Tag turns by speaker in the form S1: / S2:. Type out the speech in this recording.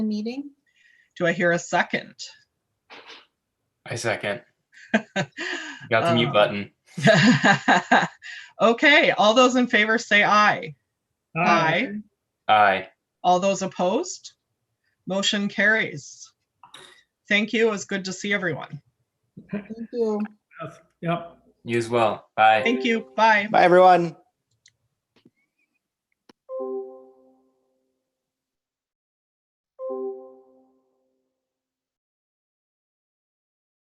S1: meeting.
S2: Do I hear a second?
S3: I second. Got the mute button.
S2: Okay, all those in favor say aye. Aye.
S3: Aye.
S2: All those opposed? Motion carries. Thank you. It was good to see everyone.
S1: Thank you.
S4: Yep.
S3: You as well. Bye.
S2: Thank you. Bye.
S5: Bye, everyone.